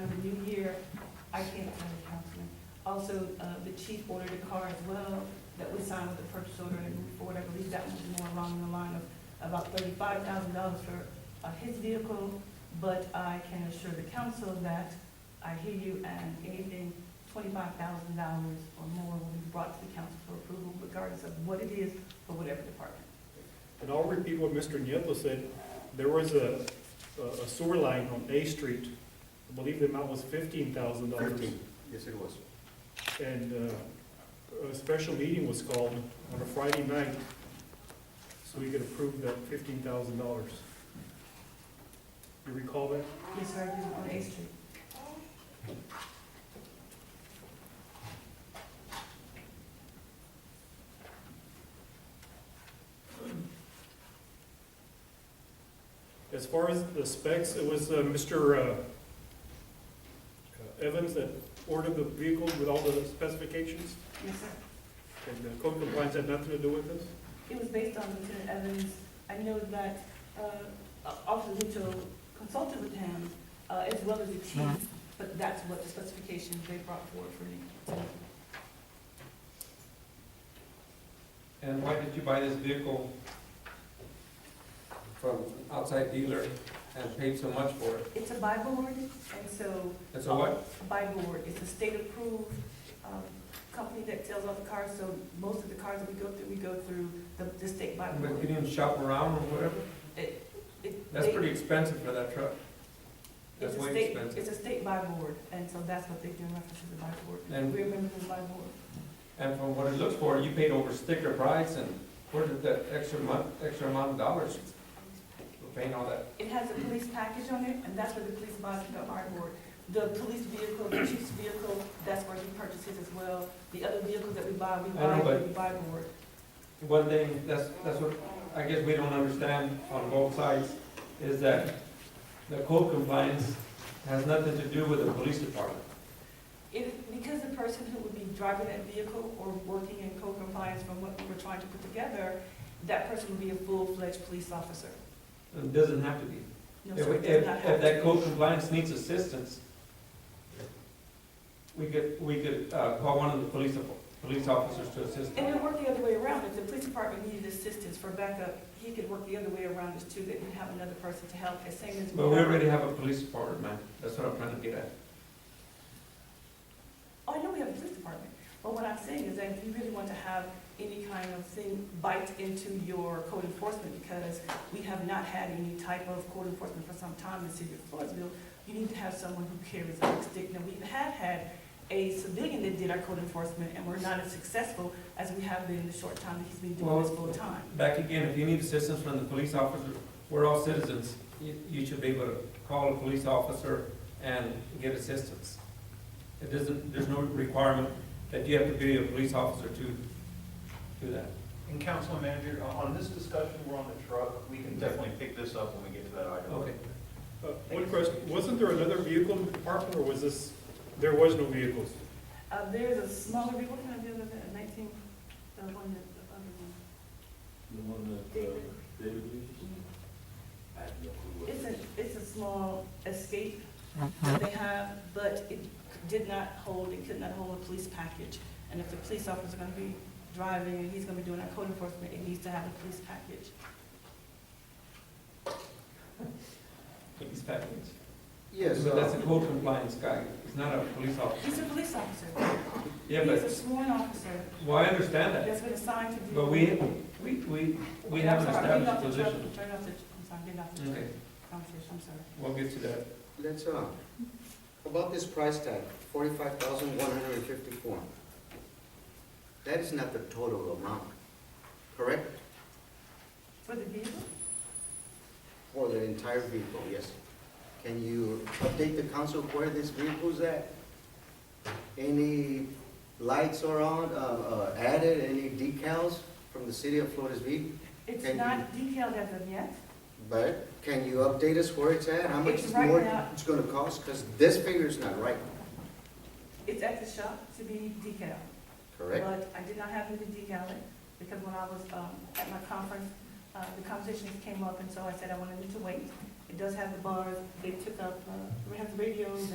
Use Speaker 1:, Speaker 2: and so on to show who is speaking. Speaker 1: I can't tell you, Councilman. Also, uh, the chief ordered a car as well that we signed with the purchase order and moved forward. I believe that was more along the line of about thirty-five thousand dollars for uh, his vehicle. But I can assure the council that I hear you and anything twenty-five thousand dollars or more will be brought to the council for approval regardless of what it is for whatever department.
Speaker 2: And I'll repeat what Mr. Nieto said, there was a, a sewer line on A Street, I believe the amount was fifteen thousand dollars.
Speaker 3: Thirteen, yes, it was.
Speaker 2: And, uh, a special meeting was called on a Friday night, so we could approve that fifteen thousand dollars. You recall that?
Speaker 1: Yes, sir, I do, on A Street.
Speaker 2: As far as the specs, it was uh, Mr. uh, Evans that ordered the vehicle with all the specifications,
Speaker 1: Yes, sir.
Speaker 2: and the code compliance had nothing to do with this?
Speaker 1: It was based on Lieutenant Evans. I know that uh, Officer Mitchell consulted with him uh, as well as the chief, but that's what the specifications they brought forward for me.
Speaker 4: And why did you buy this vehicle from an outside dealer and paid so much for it?
Speaker 1: It's a buy board, and so.
Speaker 4: It's a what?
Speaker 1: A buy board. It's a state-approved um, company that sells all the cars, so most of the cars that we go through, we go through the the state buy
Speaker 4: But you
Speaker 1: board.
Speaker 4: didn't shop around or whatever?
Speaker 1: It-
Speaker 4: That's
Speaker 1: they-
Speaker 4: pretty expensive for that truck.
Speaker 1: it's
Speaker 4: That's
Speaker 1: a
Speaker 4: way
Speaker 1: state-
Speaker 4: expensive.
Speaker 1: It's a state buy board, and so that's what they do in reference to the buy board.
Speaker 4: And-
Speaker 1: We remember the buy board.
Speaker 4: And from what it looks for, you paid over sticker price and where did that extra month, extra amount of dollars for paying all that?
Speaker 1: It has a police package on it, and that's where the police buys the hardware. The police vehicle, the chief's vehicle, that's where he purchases as well. The other vehicles that we buy, we
Speaker 4: I know,
Speaker 1: buy,
Speaker 4: but-
Speaker 1: we buy board.
Speaker 4: One thing, that's, that's what, I guess we don't understand on both sides, is that the code compliance has nothing to do with the police department.
Speaker 1: It, because the person who would be driving that vehicle or working in code compliance from what we were trying to put together, that person would be a full-fledged police officer.
Speaker 4: It doesn't have to be.
Speaker 1: No,
Speaker 4: If,
Speaker 1: sir, it
Speaker 4: if,
Speaker 1: does not have
Speaker 4: if
Speaker 1: to
Speaker 4: that
Speaker 1: be.
Speaker 4: code compliance needs assistance, we could, we could, uh, call one of the police, police officers to assist.
Speaker 1: And
Speaker 4: them.
Speaker 1: it worked the other way around. If the police department needed assistance for backup, he could work the other way around as too, that you have another person to help, as same as.
Speaker 4: But we already have a police department, man, that's what I'm trying to get at.
Speaker 1: Oh, I know we have a police department, but what I'm saying is that if you really want to have any kind of thing bite into your code enforcement, because we have not had any type of code enforcement for some time in the city of Floresville, you need to have someone who carries a big stick. Now, we have had a civilian that did our code enforcement, and we're not as successful as we have been in the short time that he's been doing this
Speaker 4: Well-
Speaker 1: full time.
Speaker 4: Back again, if you need assistance from the police officer, we're all citizens, you, you should be able to call a police officer and get assistance. It doesn't, there's no requirement that you have to be a police officer to do that.
Speaker 3: And council manager, on- on this discussion, we're on the truck, we can definitely pick this up when we get to that item.
Speaker 4: Okay.
Speaker 2: Uh, One question, wasn't there another vehicle in the department, or was this, there was no vehicles?
Speaker 1: Uh, there's a smaller, what kind of deal is that, nineteen, the one that, the other one?
Speaker 5: The one that uh, David uses? I have no clue what it
Speaker 1: It's a,
Speaker 5: is.
Speaker 1: it's a small escape that they have, but it did not hold, it could not hold a police package. And if the police officer's gonna be driving, and he's gonna be doing our code enforcement, it needs to have a police package.
Speaker 4: Police package.
Speaker 3: Yes,
Speaker 4: But that's
Speaker 3: uh,
Speaker 4: a code compliance guy, it's not a police officer.
Speaker 1: He's a police officer,
Speaker 4: Yeah,
Speaker 1: he's
Speaker 4: but
Speaker 1: a sworn officer,
Speaker 4: Well, I understand that,
Speaker 1: that's been assigned to do.
Speaker 4: but we, we, we, we have an
Speaker 1: I'm sorry, I'm getting
Speaker 4: established
Speaker 1: off the truck,
Speaker 4: position.
Speaker 1: Turn off the, I'm sorry, I'm getting off the
Speaker 4: Okay,
Speaker 1: conversation, I'm sorry.
Speaker 4: we'll get to that.
Speaker 6: Let's, uh, about this price tag, forty-five thousand one hundred and fifty-four. That is not the total amount, correct?
Speaker 1: For the vehicle,
Speaker 6: For the entire vehicle, yes. Can you update the council where this vehicle's at? Any lights are on, uh, uh, added, any decals from the city of Floresville?
Speaker 1: it's
Speaker 6: Thank
Speaker 1: not detailed as of yet,
Speaker 6: But can you update us where it's at, how much
Speaker 1: It's right
Speaker 6: more
Speaker 1: now-
Speaker 6: it's gonna cost? Because this figure's not right,
Speaker 1: it's at the shop to be detailed.
Speaker 6: correct?
Speaker 1: But I did not have him to decal it, because when I was um, at my conference, uh, the conversations came up, and so I said I wanted him to wait. It does have the bars, they took up, uh, we have the radios